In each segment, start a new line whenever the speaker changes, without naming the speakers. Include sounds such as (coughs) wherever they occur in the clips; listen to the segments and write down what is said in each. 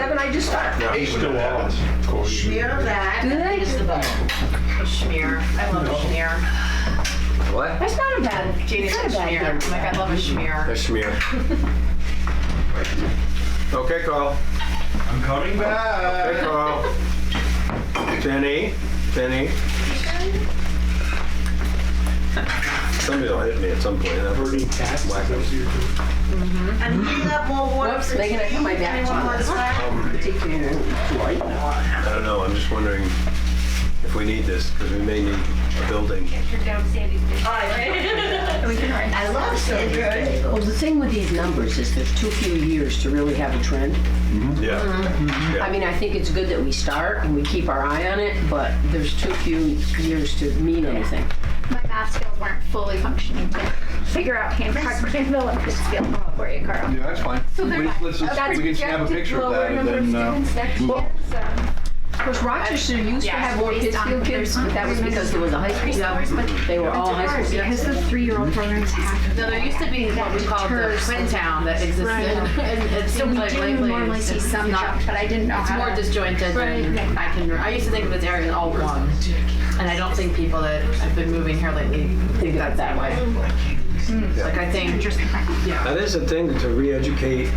happen, I just thought,
I hate when
Still
that
on,
happens.
of course.
smear of that.
Good.
Is the button.
Schmear. I love a schmear.
What?
That's not a bad,
Jane is
it's not
a
a
schmear.
bad gift. Like, I love a
A
schmear.
smear. Okay, Carl.
I'm coming back.
Hey, Carl. Jenny, Jenny. Somebody will hit me at some point.
Burning cats. is that what you're doing?
And we have more water
Whoops,
for
they're gonna
tea.
put my back
Anyone
on
want
this.
Oh,
some?
I don't know, I'm just wondering if we need this, because we may need a building.
I love Sandy.
Well, the thing with these numbers is there's too few years to really have a trend.
Yeah.
I mean, I think it's good that we start and we keep our eye on it, but there's too few years to mean anything.
My math skills weren't fully functioning to figure out Hancock, Granville, and Pittsfield for you, Carl.
Yeah, that's fine.
So they're
We-
not-
let's just-
that's
We can snap a
projected
picture of
lower
that and
number of
then, uh,
students um, next
move
year,
on.
so-
Of course, Rochester used to
Yeah.
have more
Based on
Pittsfield kids, but that was because there was a high school.
Resource, but
They were all high
hard
school.
because the three-year-old programs have.
No, there used to be what we called the
deters
twin town that existed.
Right.
(laughs) And it
So
seems
we
like
do
lately
normally
it's
see
just
some
not-
jump, but I didn't know
It's
how
more
to-
disjointed than
Right.
I can, I used to think of this area as all one. And I don't think people that have been moving here lately think that that way. Like I think,
That is a thing to re-educate,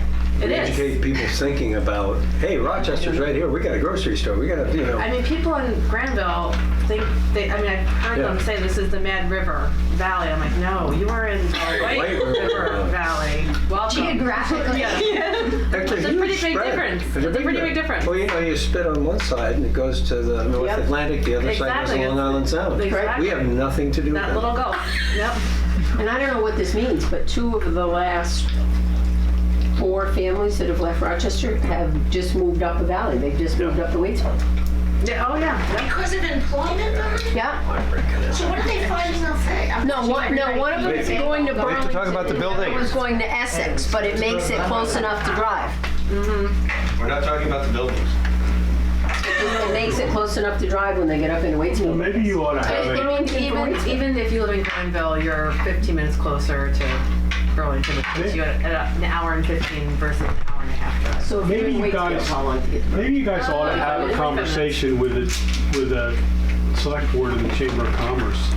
It is.
re-educate people's thinking about, hey, Rochester's right here, we got a grocery store, we got a, you
I
know.
mean, people in Granville think, they, I mean, I've heard them
Yeah.
say this is the Mad River Valley. I'm like, no, you are in the White
White River
River
Valley.
Valley. Welcome.
Geographically.
Actually,
It's a
huge
pretty big
spread.
difference.
It's a
It's a
big
pretty big difference.
Well, you know, you spit on one side and it goes to the North
Yep.
Atlantic, the other side goes to
Exactly.
Long Island Sound.
Exactly.
We have nothing to do with
That
that.
little gulf. Yep.
And I don't know what this means, but two of the last four families that have left Rochester have just moved up the valley. They've just moved up to Waitsville.
Yeah, oh yeah. Yep.
Because of employment, though?
Yeah.
So what are they finding out there?
No, one, no, one of them is going to
We have
Burlington.
to talk about the
and other
buildings.
one's going to Essex, but it makes it close enough to drive.
We're not talking about the buildings.
It makes it close enough to drive when they get up into Waitsville.
Maybe you ought to have
I
it.
mean, even, even if you live in Granville, you're 15 minutes closer to Burlington, which puts you at at an hour and 15 versus an hour and a half drive.
So if you're in
Maybe you
Waitsville,
guys-
how long to get?
Maybe you guys ought to have a conversation with the, with the select board and the Chamber of Commerce,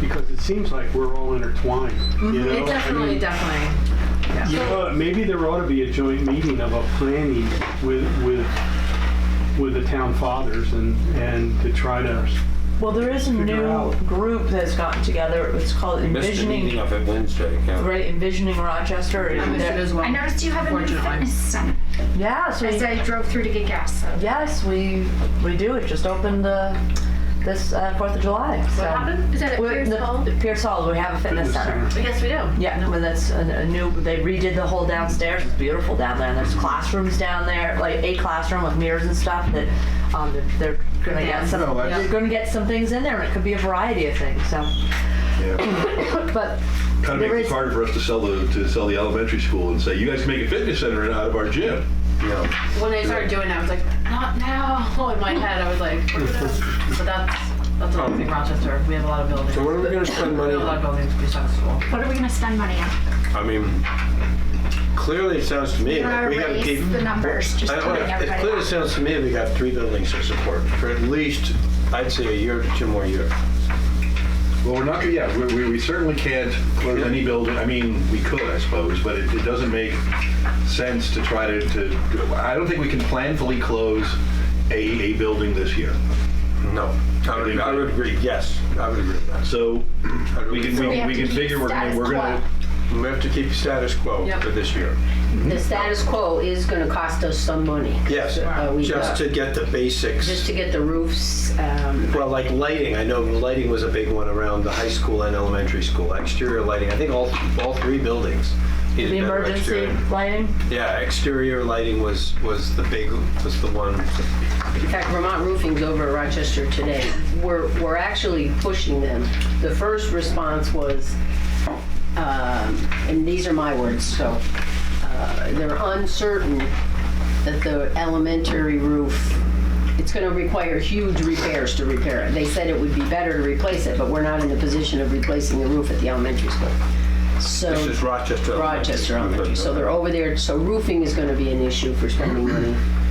because it seems like we're all intertwined, you know?
Mm-hmm. It
I
definitely,
mean,
definitely.
You know, maybe there ought to be a joint meeting of a planning with, with, with the town fathers and, and to try to,
Well, there is a
Figure
new
out.
group that's gotten together. It's called Envisioning,
of it Wednesday.
right? Envisioning Rochester.
I missed it as well.
I noticed you have a new
Fortunately.
fitness center
Yes,
as
we,
I drove through to get gas, so.
yes, we we do. It just opened uh, this uh, Fourth of July. So.
What happened?
Is that at
We're-
Pierce
the-
Hall?
Pierce Hall. We have a fitness center.
Yes, we do.
Yeah, no, but that's a, a new. They redid the whole downstairs. It's beautiful down there. And there's classrooms down there, like a classroom with mirrors and stuff. That um, they're, they're gonna get some.
No, that's-
They're gonna get some things in there, and it could be a variety of things. So, (coughs) but
Kind of
There
makes
is-
it harder for us to sell the, to sell the elementary school and say, you guys can make a fitness center out of our gym.
Yeah.
When I started doing that, I was like, not now. (laughs) In my head, I was like, we're gonna- but that's, that's another thing, Rochester. We have a lot of buildings.
So what are we gonna spend
We
money
have a lot of
on?
buildings besides school.
What are we gonna spend money on?
I mean, clearly it sounds to me
You
like
wanna
we gotta keep.
raise the numbers, just
I
to
don't
bring
know, it
everybody
clearly
up.
sounds to me we got three buildings to support for at least, I'd say a year to two more years.
Well, we're not, yeah, we- we, we certainly can't close any building, I mean, we could, I suppose, but it, it doesn't make sense to try to, to, I don't think we can planfully close a, a building this year.
No. I would, I would agree, yes, I would agree with that.
So we can, we
We
can-
have
we
to
can
keep
figure we're gonna,
status
we're gonna,
We have to keep status quo
Yep.
for this year.
The status quo is gonna cost us some money.
Yes,
Uh, we
just
got-
to get the
Just
basics.
to get the roofs, um,
Well, like lighting, I know lighting was a big one around the high school and elementary school, exterior lighting. I think all, all three buildings. needed
the
better
emergency
exterior.
lighting.
Yeah, exterior lighting was, was the big, was the one.
in fact, Vermont Roofing's over at Rochester today. We're, we're actually pushing them. The first response was, um, and these are my words, so, uh, they're uncertain that the elementary roof, it's gonna require huge repairs to repair it. They said it would be better to replace it, but we're not in the position of replacing the roof at the elementary school. So.
This is Rochester.
Rochester Elementary, so they're over there, so roofing is gonna be an issue for spending money.